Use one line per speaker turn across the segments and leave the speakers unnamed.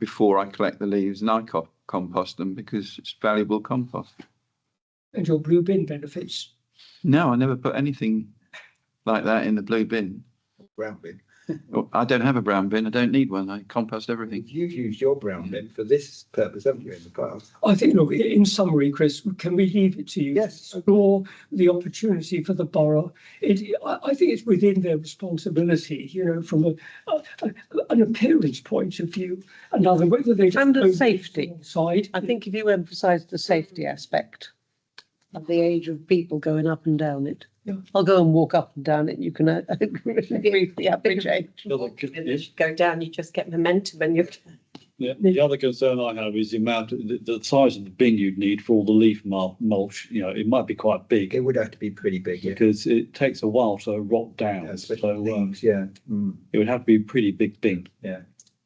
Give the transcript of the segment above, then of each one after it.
before I collect the leaves and I co- compost them because it's valuable compost.
and your blue bin benefits.
No, I never put anything like that in the blue bin.
brown bin.
Oh, I don't have a brown bin. I don't need one. I compost everything.
You've used your brown bin for this purpose, haven't you, in the past?
I think, look, i- in summary, Chris, can we leave it to you? to
Yes.
Explore the opportunity for the borough. It, I, I think it's within their responsibility, you know, from a, a- a- an appearance point of view, another, whether they. just
And the
own it
safety.
Side.
I think if you emphasise the safety aspect of the age of people going up and down it,
Yeah.
I'll go and walk up and down it. You can uh, agree with the average age.
The other con-
And as you go down, you just get momentum and you're.
yeah, the other concern I have is the amount, the, the size of the bin you'd need for all the leaf mul- mulch, you know, it might be quite big
It would have to be pretty big, yeah.
because it takes a while to rot
Yeah,
down. So
Especially
um,
leaves, yeah. Mm,
it would have to be a pretty big bin.
yeah.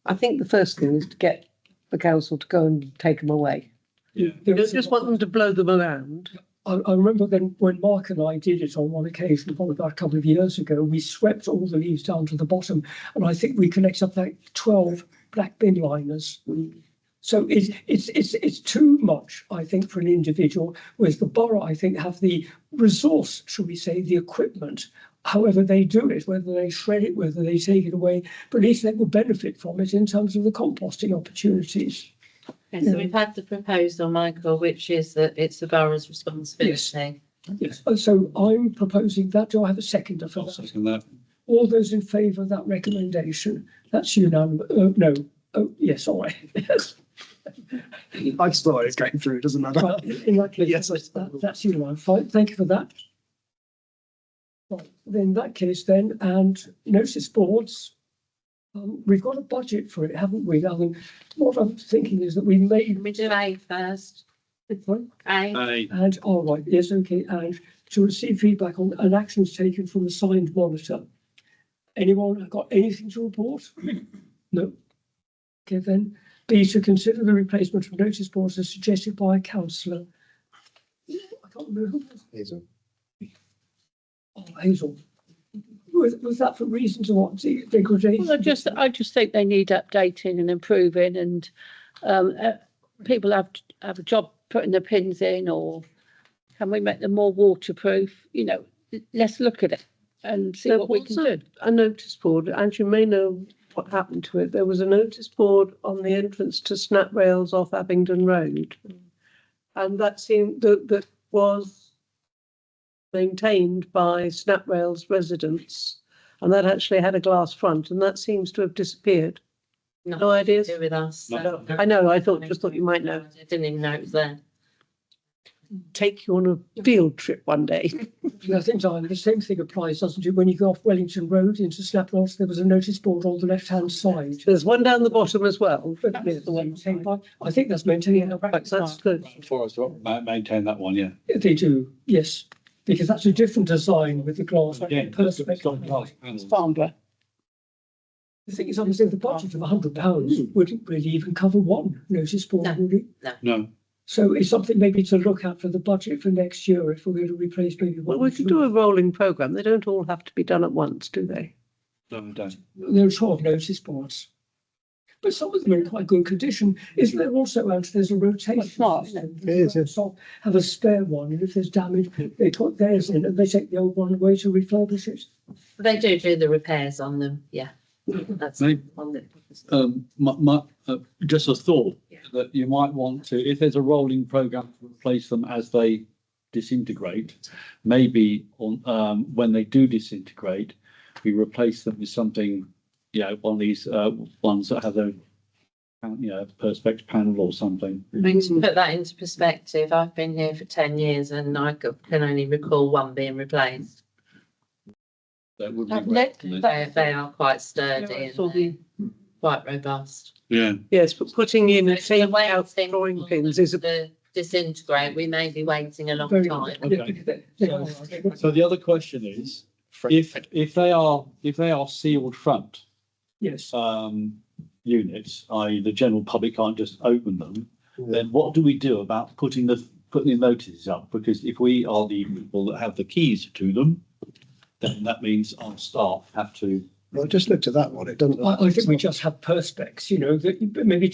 I think the first thing is to get the council to go and take them away.
there
You don't
is a
just
lot
want them to blow them around.
I, I remember then when Mark and I did it on one occasion, probably about a couple of years ago, we swept all the leaves down to the bottom, and I think we collected up like twelve black bin liners. So it's it's it's it's too much, I think, for an individual. Whereas the borough, I think, have the resource, shall we say, the equipment. However, they do it, whether they shred it, whether they take it away, but at least they will benefit from it in terms of the composting opportunities.
Okay,
Hmm.
so we've had the proposal, Michael, which is that it's the borough's responsibility.
Yes. So I'm proposing that. Do I have a seconder for
I'll
that?
second that.
All those in favour of that recommendation, that's unanimous, oh, no, oh, yes, all right, yes.
I just thought it was going through, doesn't matter.
Right, in in that case,
Yes, I-
that- that's unanimous, Fine, thank you for that. Right, then in that case then, and notice boards. Um, we've got a budget for it, haven't we, Alan? What I'm thinking is that we may,
Can we do A first? A,
Hey,
and, all right, yes, okay, and to receive feedback on, and actions taken from the signed monitor. Anyone got anything to report? No. Okay, then, B, to consider the replacement of notice boards as suggested by a councillor. I can't remember. who was-
Hazel.
Oh, Hazel. Was, was that for reasons of what, de- degradation?
Well, I just, I just think they need updating and improving and um, uh, people have, have a job putting the pins in or can we make them more waterproof? You know, let's look at it and see
There
what we can
was a-
do.
A notice board, and you may know what happened to it. There was a notice board on the entrance to Snap Rails off Abingdon Road. And that seemed, that, that was maintained by Snap Rails residents. And that actually had a glass front, and that seems to have disappeared.
nothing
No ideas?
to do with us. so-
No, I know, I thought, just thought you might know.
I Didn't even know it was there.
Take you on a field trip one day.
I think, Diana, the same thing applies, doesn't it? When you go off Wellington Road into Snaploss, there was a notice board on the left-hand side.
There's one down the bottom as well.
But it's maintained by- I think that's maintaining a
Right,
practice.
That's good.
Forest, ma- maintain that one, yeah.
They do, yes, because that's a different design with the glass.
Yeah, it's got glass
The
panels.
Farnborough.
thing is, obviously, the budget of a hundred
Hmm.
pounds wouldn't really even cover one notice board,
No.
would it?
No,
So it's something maybe to look at for the budget for next year if we're going to replace maybe one.
Well, we could do a rolling programme. They don't all have to be done at once, do they?
no, I don't.
There are twelve notice boards. But some of them are in quite good condition. Isn't there also, Ant, there's a rotation?
That's smart,
system.
It is, yes.
So Have a spare one, and if there's damage, they put theirs in and they take the old one away to refurbish it.
They do do the repairs on them, yeah.
Hmm.
That's
Maybe-
on the.
um, my, my, uh, just a thought
Yeah.
that you might want to, if there's a rolling program to replace them as they disintegrate, maybe on, um, when they do disintegrate, we replace them with something, you know, one of these, uh, ones that have a, you know, perspex panel or something.
I mean, to put that into perspective, I've been here for ten years and I c- can only recall one being replaced.
That would
That-
be.
let-
great.
that-
They, they are quite sturdy
Yeah, I
and
saw
they're
the-
quite robust.
Yeah,
Yes, but putting in and
So the
taking out
waiting
drawing
for
pins
them
is a
to Disintegrate, we may be waiting a long
Very-
time.
Yeah,
Okay.
because they- they are, I think.
so the other question is, if, if they are, if they are sealed front,
Yes,
um, units, i.e. the general public can't just open them, then what do we do about putting the, putting the notices up? Because if we are the people that have the keys to them, then that means our staff have to
I just looked at that one, it doesn't.
I, I think we just have perspex, you know, that you- maybe